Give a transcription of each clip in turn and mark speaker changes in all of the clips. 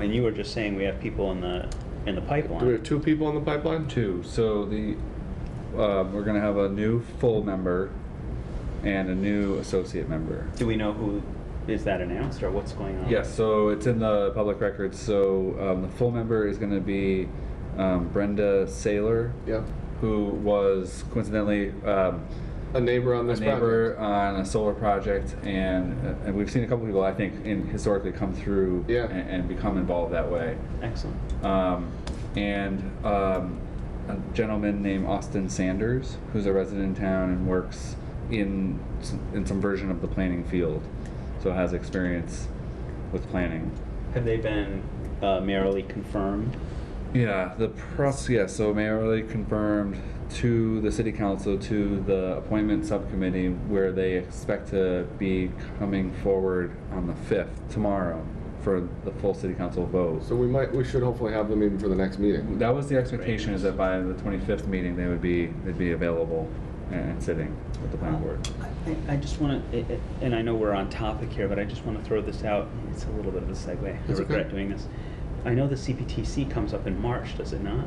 Speaker 1: And you were just saying we have people in the, in the
Speaker 2: Do we have
Speaker 1: pipeline.
Speaker 2: two people in the pipeline?
Speaker 3: Two, so the, uh, we're gonna have a new full member and a new associate member.
Speaker 1: Do we know who, is that announced or what's going on?
Speaker 3: Yes, so it's in the public records, so, um, the full member is gonna be, um, Brenda Saylor,
Speaker 2: Yeah.
Speaker 3: who was coincidentally, um,
Speaker 2: A neighbor on
Speaker 3: a
Speaker 2: this
Speaker 3: neighbor
Speaker 2: project.
Speaker 3: on a solar project, and uh, and we've seen a couple people I think in historically come through
Speaker 2: Yeah.
Speaker 3: and, and become involved that way.
Speaker 1: Excellent.
Speaker 3: Um, and um, a gentleman named Austin Sanders, who's a resident in town and works in s- in some version of the planning field, so has experience with planning.
Speaker 1: Have they been uh, merely confirmed?
Speaker 3: Yeah, the process. Yeah, so mayorally confirmed to the city council to the appointment subcommittee where they expect to be coming forward on the fifth tomorrow for the full city council vote.
Speaker 2: So we might, we should hopefully have them even for the next meeting.
Speaker 3: That was the expectation is that by the twenty fifth meeting they would be they'd be available and sitting with the planning board.
Speaker 1: Um, I, I just want to, and I know we're on topic here, but I just want to throw this out. It's a little bit of a segue. I
Speaker 2: That's
Speaker 1: regret
Speaker 2: okay.
Speaker 1: doing this. I know the CPTC comes up in March, does it not?
Speaker 3: Well,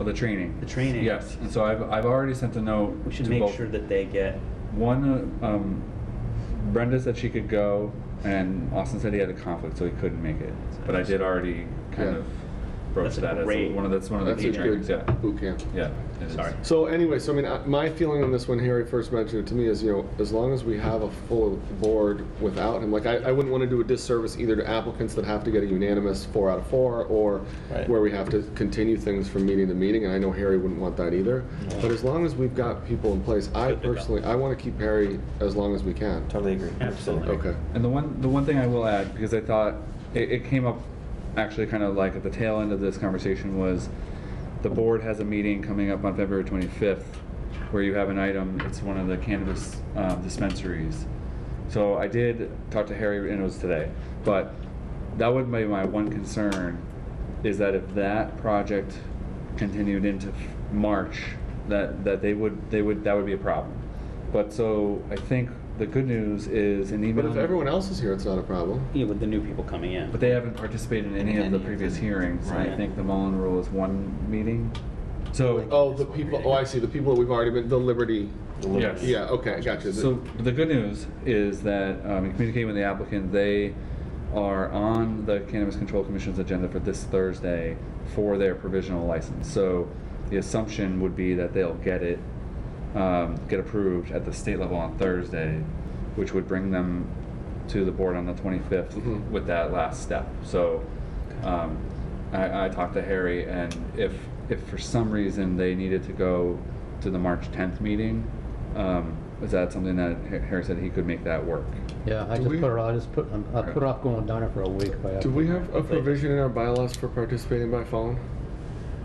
Speaker 3: Oh, the training.
Speaker 1: The training.
Speaker 3: Yes, and so I've I've already sent a note.
Speaker 1: We should
Speaker 3: to
Speaker 1: make
Speaker 3: both-
Speaker 1: sure that they get,
Speaker 3: One, uh, um, Brenda said she could go, and Austin said he had a conflict, so he couldn't make it. But I did already kind
Speaker 2: Yeah.
Speaker 3: of broach
Speaker 1: That's a
Speaker 3: that
Speaker 1: great-
Speaker 3: as one of that's one of the
Speaker 2: That's
Speaker 3: key
Speaker 2: a
Speaker 3: trainings.
Speaker 2: good
Speaker 3: Yeah,
Speaker 2: boot camp.
Speaker 3: yeah. it is.
Speaker 1: Sorry.
Speaker 2: So anyway, so I mean, uh, my feeling on this when Harry first mentioned it to me is, you know, as long as we have a full board without him, like, I, I wouldn't want to do a disservice either to applicants that have to get a unanimous four out of four, or
Speaker 4: Right.
Speaker 2: where we have to continue things from meeting to meeting, and I know Harry wouldn't want that either. But as long as we've got people in place, I
Speaker 1: Good to go.
Speaker 2: personally, I want to keep Harry as long as we can.
Speaker 4: Totally agree.
Speaker 1: Absolutely.
Speaker 2: Okay.
Speaker 3: And the one, the one thing I will add, because I thought it, it came up actually kind of like at the tail end of this conversation was the board has a meeting coming up on February 25th where you have an item, it's one of the cannabis um, dispensaries. So I did talk to Harry and it was today, but that would be my one concern is that if that project continued into f- March, that, that they would, they would, that would be a problem. But so I think the good news is an email.
Speaker 2: But if everyone else is here, it's not a problem.
Speaker 1: you know, with the new people coming in.
Speaker 3: But they haven't participated in any of the previous hearings, and I
Speaker 1: Right.
Speaker 3: think the Mullen Rule is one meeting. So,
Speaker 2: Oh, the people, oh, I see, the people that we've already been, the Liberty,
Speaker 3: yes.
Speaker 2: yeah, okay, gotcha. The-
Speaker 3: So the good news is that, um, in communicating with the applicant, they are on the Cannabis Control Commission's agenda for this Thursday for their provisional license. So the assumption would be that they'll get it, um, get approved at the state level on Thursday, which would bring them to the board on the twenty-fifth
Speaker 2: Mhm.
Speaker 3: with that last step. So, um, I, I talked to Harry and if, if for some reason they needed to go to the March tenth meeting, um, is that something that Ha- Harry said he could make that work?
Speaker 4: Yeah, I
Speaker 2: Do
Speaker 4: just
Speaker 2: we-
Speaker 4: put it, I just put, I put it off going down there for a week. but I-
Speaker 2: Do we have a provision in our bylaws for participating by phone?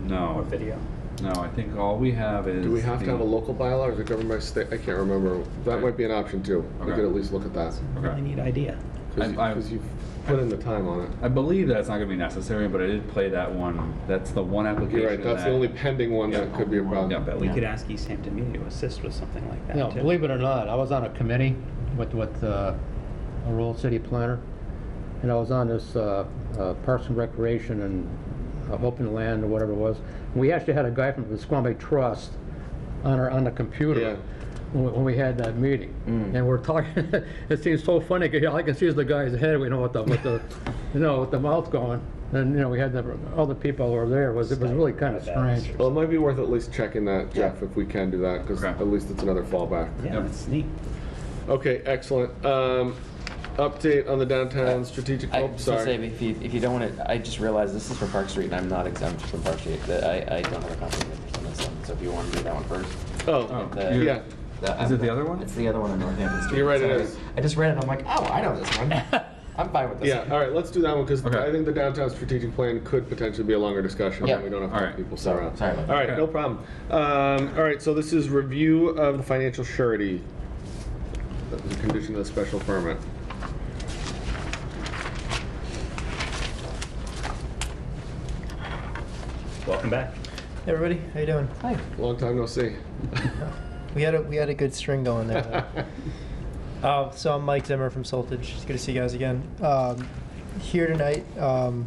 Speaker 1: Or
Speaker 3: No,
Speaker 1: video.
Speaker 3: no, I think all we have is.
Speaker 2: Do we have to
Speaker 3: the-
Speaker 2: have a local bylaw or is it governed by state? I can't remember. That might be an option too. We could
Speaker 3: Okay.
Speaker 2: at least look at that.
Speaker 1: Really
Speaker 3: Okay.
Speaker 1: neat idea.
Speaker 3: I- I-
Speaker 2: Because you've put in the time on it.
Speaker 3: I believe that's not gonna be necessary, but I did play that one, that's the one application.
Speaker 2: You're right, that's the
Speaker 3: that-
Speaker 2: only pending one that
Speaker 3: Yeah.
Speaker 2: could be a problem.
Speaker 3: Yeah,
Speaker 1: We
Speaker 3: but-
Speaker 1: could ask East Hampton Media to assist with something like that.
Speaker 4: You know,
Speaker 1: too.
Speaker 4: believe it or not, I was on a committee with, with uh, a rural city planner, and I was on this uh, uh, Parks and Recreation and uh, Open Land or whatever it was. We actually had a guy from the Squamby Trust on our, on the
Speaker 2: Yeah. Mm.
Speaker 4: computer when when we had that meeting. And we're talking, it seems so funny, 'cause all I can see is the guy's head, we know what the, with the, you know, with the mouth going. And, you know, we had the, all the people who were there, it was, it was really kind of strange.
Speaker 2: Well, it might be worth at least checking that, Jeff, if we can do that, because
Speaker 3: Okay.
Speaker 2: at least it's another fallback.
Speaker 1: Yeah,
Speaker 3: Yep.
Speaker 1: that's neat.
Speaker 2: Okay, excellent. Um, Update on the downtown strategic,
Speaker 5: I,
Speaker 2: oh,
Speaker 5: just to say,
Speaker 2: sorry.
Speaker 5: if you, if you don't want to, I just realized this is for Park Street, and I'm not exempt from Park Street. That I, I don't have a conflict of interest on this one. So if you want to do that one first,
Speaker 2: Oh,
Speaker 3: Oh, you-
Speaker 2: yeah,
Speaker 3: Is
Speaker 5: that- I'm-
Speaker 3: it the other one?
Speaker 5: It's the other one on Northampton Street.
Speaker 2: You're right, it
Speaker 5: Sorry.
Speaker 2: is.
Speaker 5: I just read it. and I'm like, oh, I know this one. I'm fine with this.
Speaker 2: yeah, all right, let's do that one, because
Speaker 3: Okay.
Speaker 2: I think the downtown strategic plan could potentially be a longer discussion,
Speaker 5: Yeah.
Speaker 2: and we don't have
Speaker 3: All
Speaker 2: to have
Speaker 3: right.
Speaker 2: people sit
Speaker 5: So
Speaker 2: around.
Speaker 5: sorry about that.
Speaker 2: All right,
Speaker 3: Okay.
Speaker 2: no problem. Um, all right, so this is review of the financial surety. That was a condition of the special permit.
Speaker 1: Welcome back.
Speaker 6: Hey everybody, how you doing? Hi.
Speaker 2: Long time no see.
Speaker 6: We had a we had a good string going there. though. uh, so I'm Mike Zimmer from Soltage. It's good to see you guys again. Um, here tonight, um,